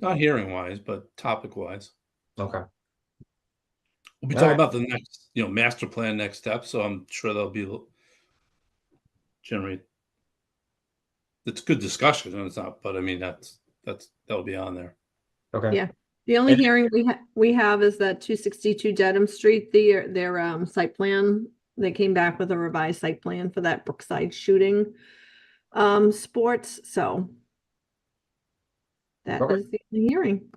Not hearing wise, but topic wise. Okay. We'll be All talking right. about the next, you know, master plan next step. So I'm sure there'll be l- generate. It's good discussion, and it's not. But I mean, that's that's that'll be on there. Okay. Yeah. The only And- hearing we ha- we have is that two sixty-two Dedham Street, their, their, um, site plan. They came back with a revised site plan for that Brookside shooting, um, sports, so. That Okay. was the only hearing.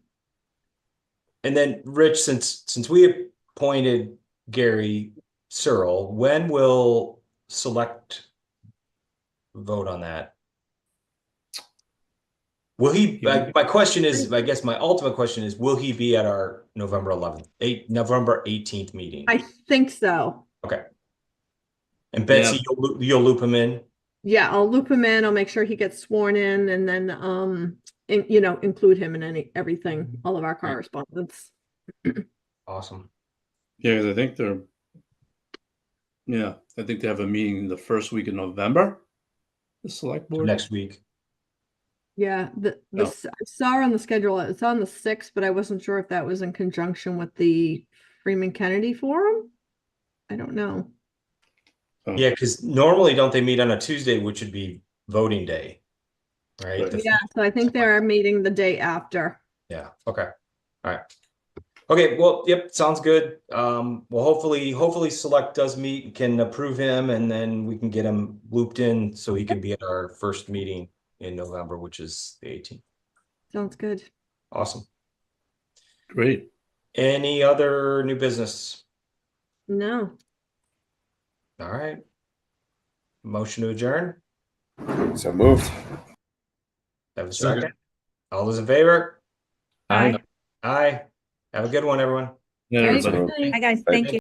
And then, Rich, since since we appointed Gary Searle, when will select vote on that? Will he, my, my question is, I guess my ultimate question is, will he be at our November eleventh, eight, November eighteenth meeting? I think so. And Betsy, you'll, loo- you'll loop him in? Yeah, I'll loop him in. I'll make sure he gets sworn in and then, um, in you know, include him in any, everything, all of our correspondence. Awesome. Yeah, 'cause I think they're. Yeah, I think they have a meeting the first week in November. The select So board. Next week. Yeah, the, No. the, s- I saw on the schedule, it's on the sixth, but I wasn't sure if that was in conjunction with the Freeman Kennedy Forum. I don't know. So, Yeah, because normally don't they meet on a Tuesday, which would be voting day? Right? Right. The Yeah, so I think they're meeting the day after. Yeah, okay, alright. Okay, well, yep, sounds good. Um, well, hopefully, hopefully Select does meet, and can approve him, and then we can get him looped in so he can be at our first meeting in November, which is the eighteenth. Sounds good. Awesome. Great. Any other new business? No, Alright. Motion to adjourn? So moved. Have a second? All those in favor? Aye. Aye. Have a good one, everyone. Yeah, Very everybody. good. Hi, guys. Thank you.